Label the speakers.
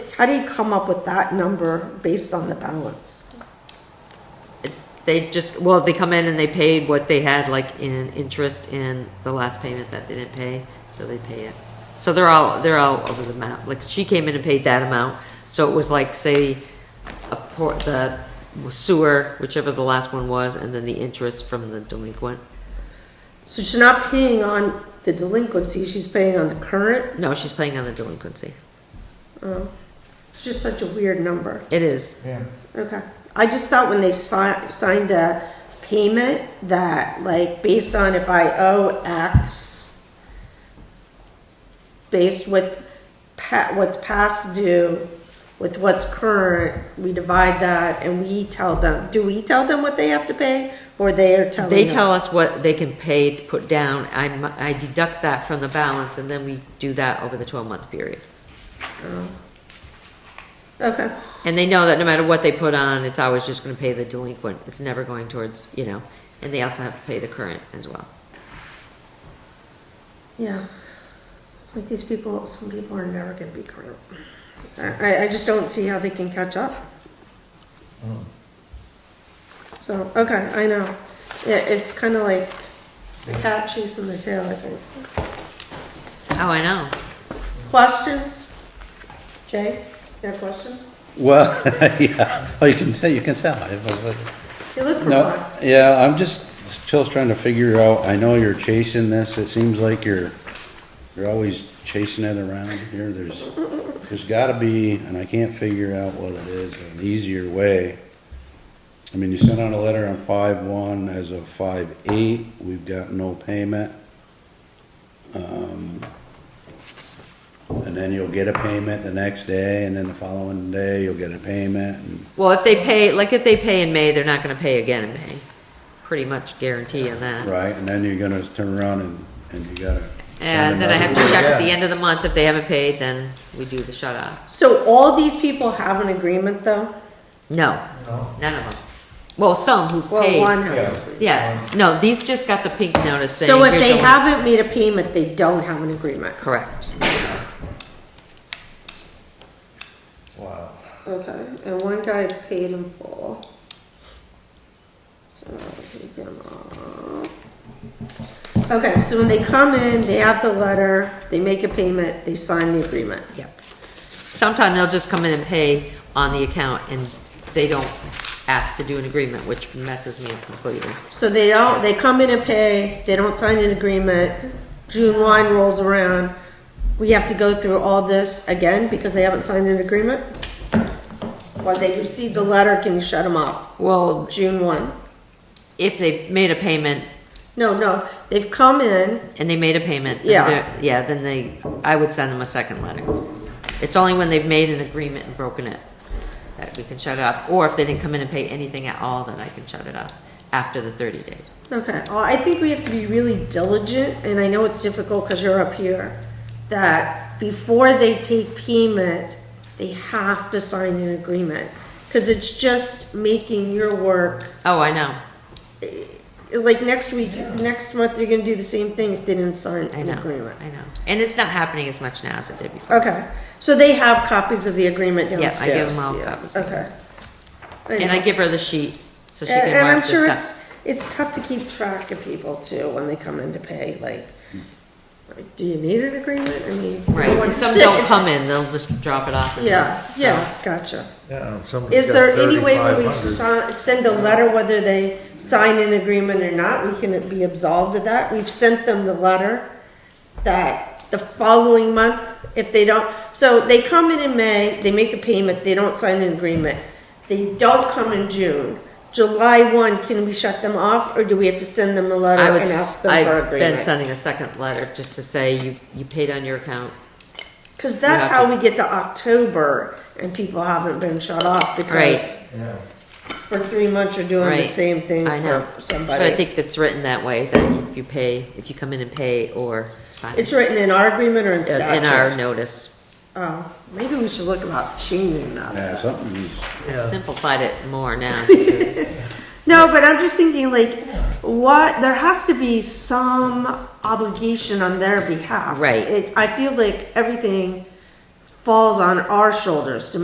Speaker 1: How do you come up with that number based on the balance?
Speaker 2: They just, well, if they come in and they paid what they had like in interest in the last payment that they didn't pay, so they pay it. So they're all, they're all over the map. Like she came in and paid that amount, so it was like, say, a port, the sewer, whichever the last one was, and then the interest from the delinquent.
Speaker 1: So she's not paying on the delinquency, she's paying on the current?
Speaker 2: No, she's paying on the delinquency.
Speaker 1: Oh, It's just such a weird number.
Speaker 2: It is.
Speaker 3: Yeah.
Speaker 1: Okay. I just thought when they si- signed a payment that, like, based on if I owe X, based with pa- what's past due, with what's current, we divide that and we tell them. Do we tell them what they have to pay, or they are telling?
Speaker 2: They
Speaker 1: us?
Speaker 2: tell us what they can pay, to put down, I, mu- I deduct that from the balance, and then we do that over the twelve-month period.
Speaker 1: Okay.
Speaker 2: And they know that no matter what they put on, it's always just gonna pay the delinquent, it's never going towards, you know, and they also have to pay the current as well.
Speaker 1: Yeah. It's like these people. Some people are never going to be current. I, I- I just don't see how they can catch up.
Speaker 3: Mm.
Speaker 1: So, okay, I know. Yeah, it's kind of like the cat chasing the tail, I think.
Speaker 2: Oh, I know,
Speaker 1: Questions? Jay, you have questions?
Speaker 4: Well, yeah, oh, you can tell, you can tell. I was like-
Speaker 1: You look
Speaker 4: No,
Speaker 1: perplexed.
Speaker 4: yeah, I'm just still trying to figure out, I know you're chasing this, it seems like you're, you're always chasing it around here, there's, there's gotta be, and I can't figure out what it is, an easier way. I mean, you sent out a letter on five one, as of five eight, we've got no payment. Um, And then you'll get a payment the next day, and then the following day, you'll get a payment, and
Speaker 2: well, if they pay, like, if they pay in May, they're not gonna pay again in May, pretty much guarantee on that.
Speaker 4: Right, and then you're gonna turn around and, and you gotta. send
Speaker 2: And then I have to
Speaker 4: another-
Speaker 2: check at the end of the month, if they haven't paid, then we do the shut off.
Speaker 1: So all these people have an agreement, though?
Speaker 2: No,
Speaker 3: No.
Speaker 2: none of them. Well, some who
Speaker 1: Well, one
Speaker 2: paid,
Speaker 1: has.
Speaker 3: Yeah.
Speaker 2: yeah, no, these just got the pink notice saying.
Speaker 1: So if
Speaker 2: here's
Speaker 1: they
Speaker 2: the-
Speaker 1: haven't made a payment, they don't have an agreement?
Speaker 2: Correct,
Speaker 3: Wow.
Speaker 1: Okay, and one guy paid in full. So, he did them all. Okay, so when they come in, they have the letter, they make a payment, they sign the agreement.
Speaker 2: yep. Sometimes they'll just come in and pay on the account, and they don't ask to do an agreement, which messes me up completely.
Speaker 1: So they don't, they come in and pay, they don't sign an agreement, June one rolls around, we have to go through all this again because they haven't signed an agreement? Or they received a letter, can you shut them off,
Speaker 2: Well,
Speaker 1: June one?
Speaker 2: if they've made a payment
Speaker 1: No, no, they've come in,
Speaker 2: and they made a payment,
Speaker 1: Yeah.
Speaker 2: then they're- yeah, then they, I would send them a second letter. It's only when they've made an agreement and broken it that we can shut it off, or if they didn't come in and pay anything at all, then I can shut it off after the thirty days.
Speaker 1: Okay, well, I think we have to be really diligent, and I know it's difficult because you're up here, that before they take payment, they have to sign an agreement. Because it's just making your work, eh,
Speaker 2: Oh, I know,
Speaker 1: like next week, next month, you're gonna do the same thing if they didn't sign
Speaker 2: I
Speaker 1: an
Speaker 2: know,
Speaker 1: agreement.
Speaker 2: I know. And it's not happening as much now as it did before.
Speaker 1: Okay, so they have copies of the agreement
Speaker 2: Yes,
Speaker 1: downstairs?
Speaker 2: I give them all copies.
Speaker 1: Okay.
Speaker 2: And I give her the sheet, so she
Speaker 1: And
Speaker 2: can
Speaker 1: and
Speaker 2: mark
Speaker 1: I'm
Speaker 2: this
Speaker 1: sure
Speaker 2: up.
Speaker 1: it's, it's tough to keep track of people too, when they come in to pay, like, like, do you need an agreement? I mean. no
Speaker 2: Right, and
Speaker 1: one's
Speaker 2: some
Speaker 1: sitting-
Speaker 2: don't come in, they'll just drop it off. and-
Speaker 1: Yeah,
Speaker 2: so-
Speaker 1: yeah, gotcha.
Speaker 3: Yeah, and somebody's
Speaker 1: Is
Speaker 3: got
Speaker 1: there any way when we
Speaker 3: 3,500.
Speaker 1: si- send a letter, whether they sign an agreement or not, we can be absolved of that? We've sent them the letter that the following month, if they don't, so they come in in May, they make a payment, they don't sign an agreement. They don't come in June. July one, can we shut them off or do we have to send them a letter
Speaker 2: I
Speaker 1: and
Speaker 2: would,
Speaker 1: ask
Speaker 2: s-
Speaker 1: them for
Speaker 2: I've been
Speaker 1: agreement?
Speaker 2: sending a second letter just to say you, you paid on your account.
Speaker 1: Cause that's
Speaker 2: have
Speaker 1: how we get to October and people haven't been shut off because
Speaker 3: Yeah.
Speaker 1: for three months you're doing the
Speaker 2: Right.
Speaker 1: same thing
Speaker 2: I know.
Speaker 1: for somebody.
Speaker 2: But I think that's written that way, that if you pay, if you come in and pay or sign uh,
Speaker 1: It's written in our agreement or in
Speaker 2: in our
Speaker 1: statute?
Speaker 2: notice.
Speaker 1: Oh, maybe we should look about changing that.
Speaker 4: Yeah, something's,
Speaker 3: Yeah.
Speaker 2: Simplified it more now. too.
Speaker 1: No, but I'm just thinking like, what, there has to be some obligation on their behalf.
Speaker 2: Right.
Speaker 1: It, I feel like everything falls on our shoulders to